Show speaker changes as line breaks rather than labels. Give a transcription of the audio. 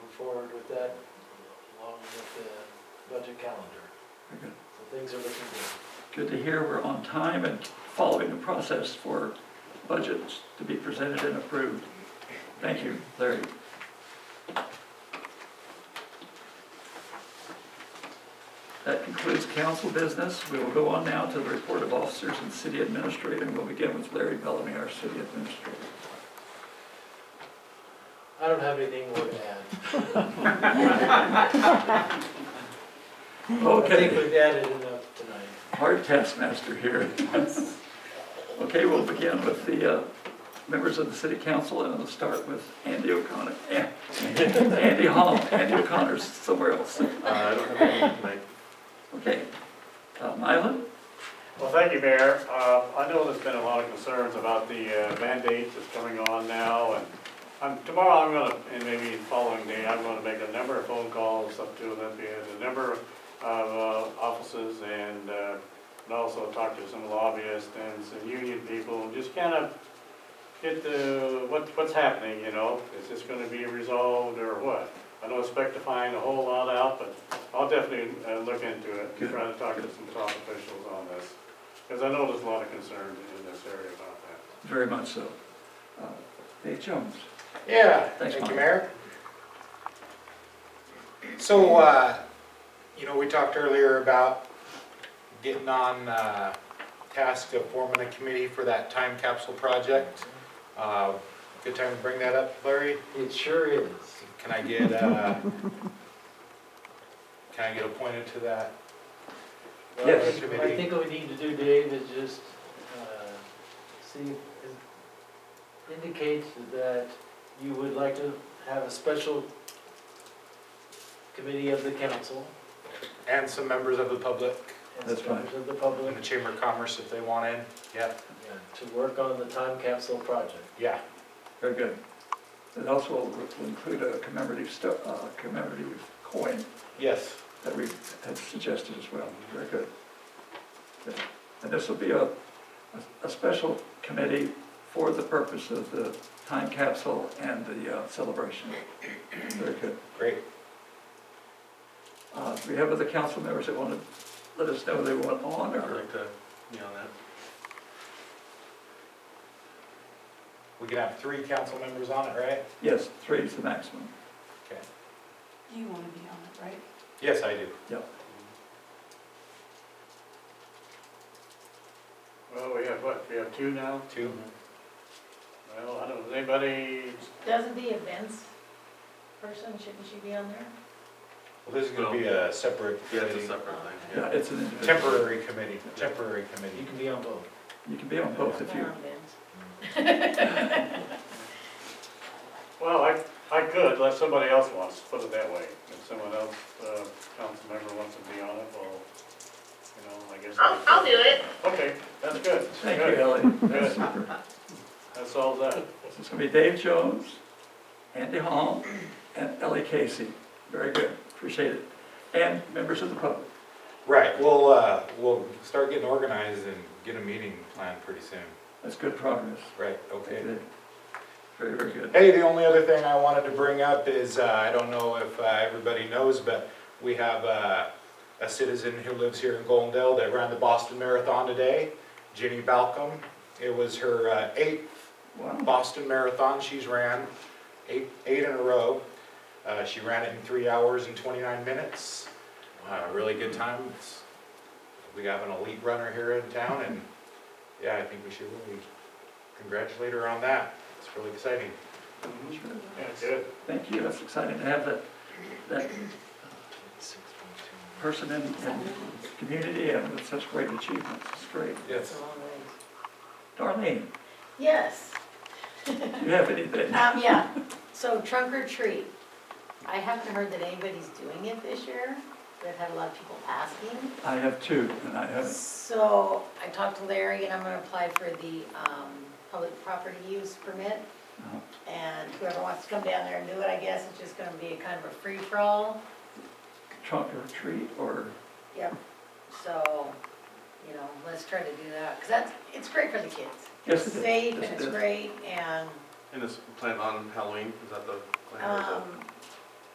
forward with that along with the budget calendar.
Very
So things are looking good.
Good to hear we're on time and following the process for budgets to be presented and approved. Thank you, Larry. That concludes council business. We will go on now to the report of officers and city administrator, and we'll begin with Larry Bellamy, our city administrator.
I don't have anything more to add. I think
Okay,
we've added enough tonight.
hard taskmaster here. Okay, we'll begin with the uh, members of the city council, and we'll start with Andy O'Connor. Eh, Andy Hall, Andy O'Connor's somewhere else.
Uh, I don't have anything tonight.
Okay. Uh, Mylan?
Well, thank you, Mayor. Uh, I know there's been a lot of concerns about the uh, mandate that's coming on now, and I'm- tomorrow I'm gonna, and maybe the following day, I'm gonna make a number of phone calls up to Olympia, and a number of uh, offices, and uh, and also talk to some lobbyists and some union people, and just kind of get the, what- what's happening, you know? Is this gonna be resolved or what? I don't expect to find a whole lot out, but I'll definitely uh, look into it, and try to talk to some top officials on this. Because I know there's a lot of concern in this area about that.
Very much so. Uh, Dave Jones?
Yeah,
Thanks,
thank
Mike.
you, Mayor. So, uh, you know, we talked earlier about getting on uh, task of forming a committee for that time capsule project. Uh, Good time to bring that up, Larry?
It sure is.
Can I get, uh, can I get appointed to that? uh,
Yes.
I
committee?
think what we need to do, Dave, is just, uh, see, indicate that you would like to have a special committee of the council
And some members of the public
and
That's
some
fine.
members of the
in
public
the Chamber of Commerce if they want in. Yeah,
to work on the time capsule project.
yeah,
Very good. It also will include a commemorative, sto- uh, commemorative coin
yes.
that we had suggested as well. Very good. Good. And this will be a, a- a special committee for the purpose of the time capsule and the uh, celebration. Very good.
Great.
Uh, Do we have other council members that want to let us know they want on or?
to be on that.
We can have three council members on it, right?
Yes, three is the maximum.
You want to be on it, right?
Yes, I do.
Well, we have what, we have two now?
Two.
Well, I don't, anybody,
Doesn't the events person, shouldn't she be on there?
Well, this is gonna be a separate
Yeah, it's a
committee,
separate thing,
Yeah,
yeah.
it's an individual.
temporary committee, temporary
You
committee.
can be on both.
You can be on both if you,
On events.
well, I, I could, let somebody else wants, put it that way. If someone else, uh, council member wants to be on it, well, you know, I guess.
I'll, I'll do it.
Okay, that's good.
thank
Good.
you, Ellie. That's
Good.
super.
That solves that.
So it's going to be Dave Jones, Andy Hall, and Ellie Casey. Very good, appreciate it. And members of the public.
Right, we'll, uh, we'll start getting organized and get a meeting planned pretty soon.
That's good progress.
Right, okay.
Very, very good.
Hey, the only other thing I wanted to bring up is, uh, I don't know if, uh, everybody knows, but we have, uh, a citizen who lives here in Goldendale that ran the Boston Marathon today, Jenny Balcom. It was her, uh, eighth
Wow,
Boston Marathon she's ran, eight, eight in a row. Uh, she ran it in three hours and 29 minutes. Uh, really good time. It's, we have an elite runner here in town, and yeah, I think we should really congratulate her on that. It's really exciting.
sure.
Yeah, good.
Thank you, that's exciting to have that, that person in, in community and with such great achievements. It's great.
Yes.
Darlene,
Yes,
do you have anything?
um, yeah, so trunk or treat. I haven't heard that anybody's doing it this year, but I've had a lot of people asking.
I have two, and I haven't
So I talked to Larry and I'm gonna apply for the, um, public property use permit.
Uh-huh.
And whoever wants to come down there and do it, I guess, it's just gonna be a kind of a free-for-all.
trunk or treat or,
Yep, so, you know, let's try to do that, because that's, it's great for the kids.
Yes,
It's
it is.
safe
Yes,
and
it
it's
is.
great, and,
And this plan on Halloween, is that the plan or is
um,
it?